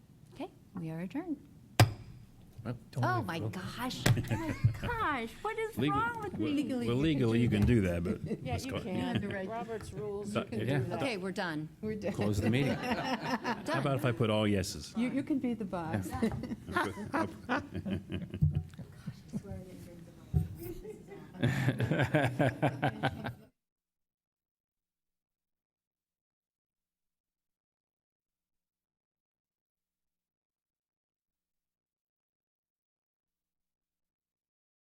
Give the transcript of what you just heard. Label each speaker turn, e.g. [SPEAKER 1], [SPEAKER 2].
[SPEAKER 1] We are adjourned.
[SPEAKER 2] Well,
[SPEAKER 1] Oh, my gosh. Oh, my gosh. What is
[SPEAKER 2] legal-
[SPEAKER 1] wrong with
[SPEAKER 2] well,
[SPEAKER 1] me?
[SPEAKER 2] Well, legally, you can do that, but.
[SPEAKER 3] Yeah,
[SPEAKER 2] let's
[SPEAKER 3] you
[SPEAKER 2] go-
[SPEAKER 3] can. Robert's rules.
[SPEAKER 2] Uh,
[SPEAKER 3] you can
[SPEAKER 2] yeah.
[SPEAKER 3] do that.
[SPEAKER 1] Okay, we're done.
[SPEAKER 4] We're done.
[SPEAKER 2] Close the meeting. How about
[SPEAKER 1] Done.
[SPEAKER 2] if I put all yeses?
[SPEAKER 4] You, you can be the boss.